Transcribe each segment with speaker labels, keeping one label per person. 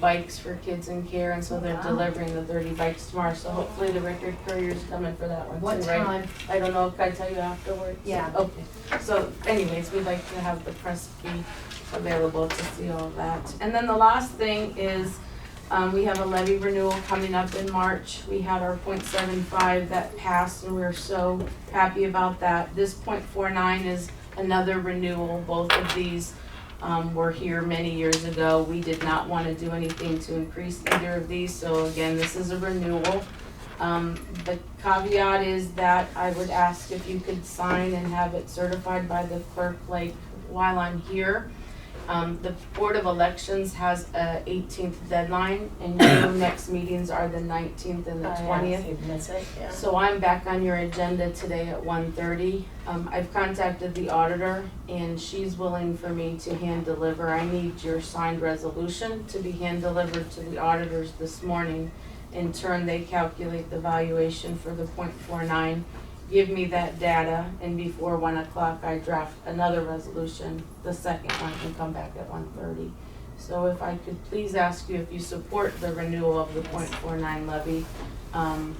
Speaker 1: bikes for kids in care, and so they're
Speaker 2: Wow.
Speaker 1: delivering the thirty bikes tomorrow, so hopefully the Richard Courier's coming for that one
Speaker 2: What
Speaker 1: too, right?
Speaker 2: time?
Speaker 1: I don't know, can I tell you afterwards?
Speaker 2: Yeah.
Speaker 1: Okay, so anyways, we'd like to have the press be available to see all that. And then the last thing is, um, we have a levy renewal coming up in March. We had our .75 that passed and we we're so happy about that. This .49 is another renewal, both of these, um, were here many years ago. We did not wanna do anything to increase either of these, so again, this is a renewal. Um, the caveat is that I would ask if you could sign and have it certified by the clerk like while I'm here. Um, the Board of Elections has a eighteenth deadline and your next meetings are the nineteenth and
Speaker 2: Uh,
Speaker 3: Oh,
Speaker 1: the twentieth. So I'm back on your agenda today at 1:30. Um, I've contacted the auditor and she's willing for me to hand deliver. I need your signed resolution to be hand delivered to the auditors this morning. In turn, they calculate the valuation for the 0.49. give me that data, and before one o'clock, I draft another resolution. The second one can come back at 1:30. So if I could please ask you if you support the renewal of the 0.49 levy, um,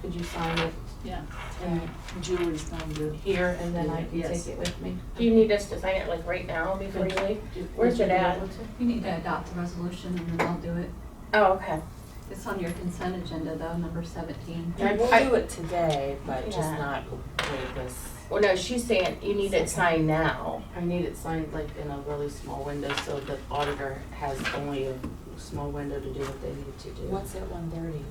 Speaker 1: could you sign it?
Speaker 4: Yeah.
Speaker 1: And
Speaker 4: Julie's done good.
Speaker 1: here, and then I can
Speaker 4: Yes.
Speaker 1: take it with me?
Speaker 5: Do you need us to sign it like right now before you leave?
Speaker 1: Do- would
Speaker 5: Where's
Speaker 1: you
Speaker 5: it
Speaker 1: be
Speaker 5: at?
Speaker 1: able to?
Speaker 3: You need to adopt the resolution and then I'll do it.
Speaker 5: Oh, okay.
Speaker 3: It's on your consent agenda though, number seventeen.
Speaker 5: I-
Speaker 6: We'll
Speaker 5: I-
Speaker 6: do it today, but just
Speaker 5: Yeah.
Speaker 6: not with this.
Speaker 5: Well, no, she's saying you need it signed now.
Speaker 1: I need it signed like in a really small window, so the auditor has only a small window to do what they need to do.
Speaker 6: What's at one thirty?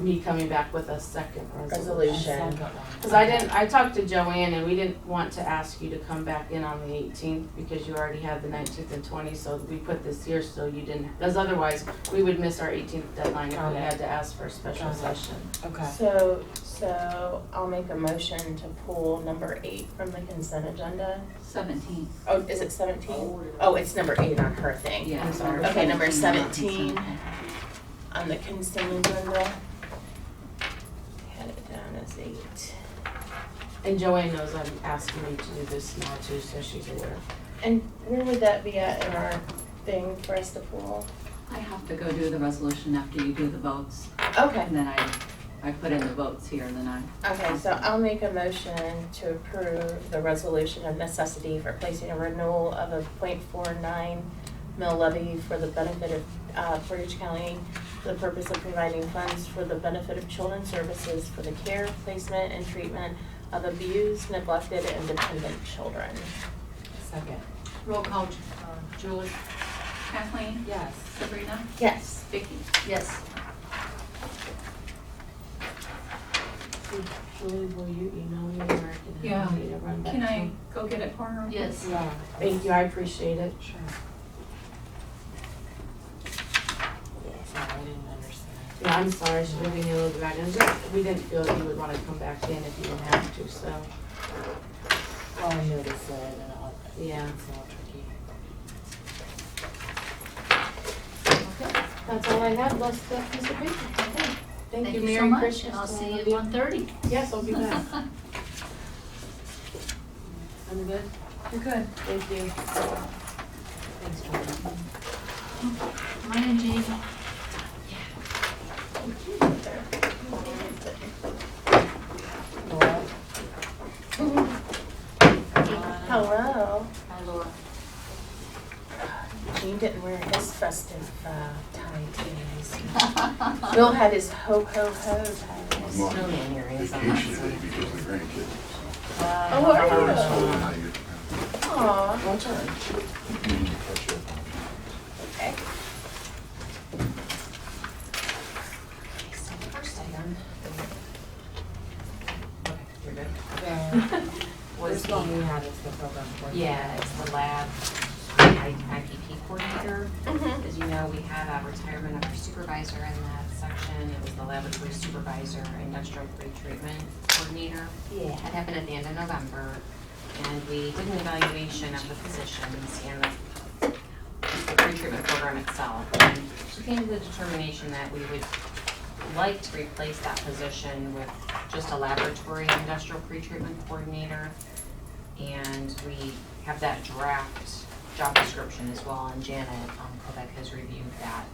Speaker 1: Me coming back with a second resolution.
Speaker 5: Resolution.
Speaker 1: Cause I didn't, I talked to Joanne and we didn't want to ask you to come back in on the eighteenth because you already had the nineteenth and twentieth, so we put this here so you didn't, because otherwise, we would miss our eighteenth deadline if
Speaker 6: Got
Speaker 1: we
Speaker 6: it.
Speaker 1: had to ask for a special
Speaker 6: Got it.
Speaker 1: session.
Speaker 6: Okay.
Speaker 5: So, so I'll make a motion to pull number eight from the consent agenda.
Speaker 3: Seventeen,
Speaker 5: Oh, is it seventeen? Oh, it's number eight on her thing.
Speaker 3: yeah.
Speaker 1: I'm sorry.
Speaker 5: Okay, number
Speaker 3: 17,
Speaker 5: 17. On the consent agenda. Had it down as eight.
Speaker 1: And Joanne knows I'm asking you to do this now too, so she's aware.
Speaker 5: And where would that be at in our thing for us to pull?
Speaker 3: I have to go do the resolution after you do the votes
Speaker 5: Okay.
Speaker 3: and then I, I put in the votes here and then I,
Speaker 5: Okay, so I'll make a motion to approve the resolution of necessity for placing a renewal of a .49 mill levy for the benefit of uh, Portage County for the purpose of providing funds for the benefit of children's services for the care, placement, and treatment of abused, neglected, and dependent children.
Speaker 6: Second.
Speaker 4: Roll call, Ju- uh, Julie.
Speaker 3: Kathleen,
Speaker 6: Yes.
Speaker 3: Sabrina,
Speaker 5: Yes.
Speaker 3: Vicky.
Speaker 4: Yes.
Speaker 1: Julie, will you email me or I can
Speaker 3: Yeah.
Speaker 1: have me to run back?
Speaker 3: Can
Speaker 1: to-
Speaker 3: I go get it for her?
Speaker 4: Yes.
Speaker 6: Yeah.
Speaker 1: Thank you, I appreciate it.
Speaker 6: Sure. Sorry, I didn't understand.
Speaker 1: Yeah, I'm sorry, I should have been a little bit back, and just, we didn't feel that you would wanna come back in if you didn't have to, so,
Speaker 6: Well, I noticed it and all,
Speaker 1: yeah.
Speaker 6: it's all tricky.
Speaker 1: That's all I have, let's, that piece of paper. Thank
Speaker 4: Thank
Speaker 1: you,
Speaker 4: you so
Speaker 1: Merry
Speaker 4: much,
Speaker 1: Christmas.
Speaker 4: and I'll
Speaker 1: to
Speaker 4: see
Speaker 1: all
Speaker 4: you
Speaker 1: of
Speaker 4: at one thirty.
Speaker 1: Yes, I'll be back. I'm good,
Speaker 3: You're good.
Speaker 1: thank you.
Speaker 6: Thanks, Jordan.
Speaker 4: Mine and Jane.
Speaker 6: Laura?
Speaker 5: Oh, Hello.
Speaker 4: Hi Laura.
Speaker 5: Gene didn't wear his festive uh, tie today. Bill had his ho ho ho tie.
Speaker 7: I'm on
Speaker 6: Really in your ears on
Speaker 7: vacation
Speaker 6: that
Speaker 7: today
Speaker 6: one.
Speaker 7: because of the grandkids.
Speaker 5: Oh,
Speaker 7: I already told
Speaker 5: wow.
Speaker 7: them I get,
Speaker 5: Aw.
Speaker 6: What's your-
Speaker 7: I need to catch up on
Speaker 5: Okay.
Speaker 6: Okay, so the first item. Okay, you're good. Was the, how does the program work?
Speaker 8: Yeah, it's the lab I- IPP coordinator. As you know, we had a retirement of our supervisor in that section. It was the laboratory supervisor, industrial pretreatment coordinator.
Speaker 6: Yeah.
Speaker 8: That happened at the end of November. And we did an evaluation of the positions and the the pretreatment program itself. And We came to the determination that we would like to replace that position with just a laboratory industrial pretreatment coordinator. And we have that draft job description as well, and Janet um, Kobeck has reviewed that.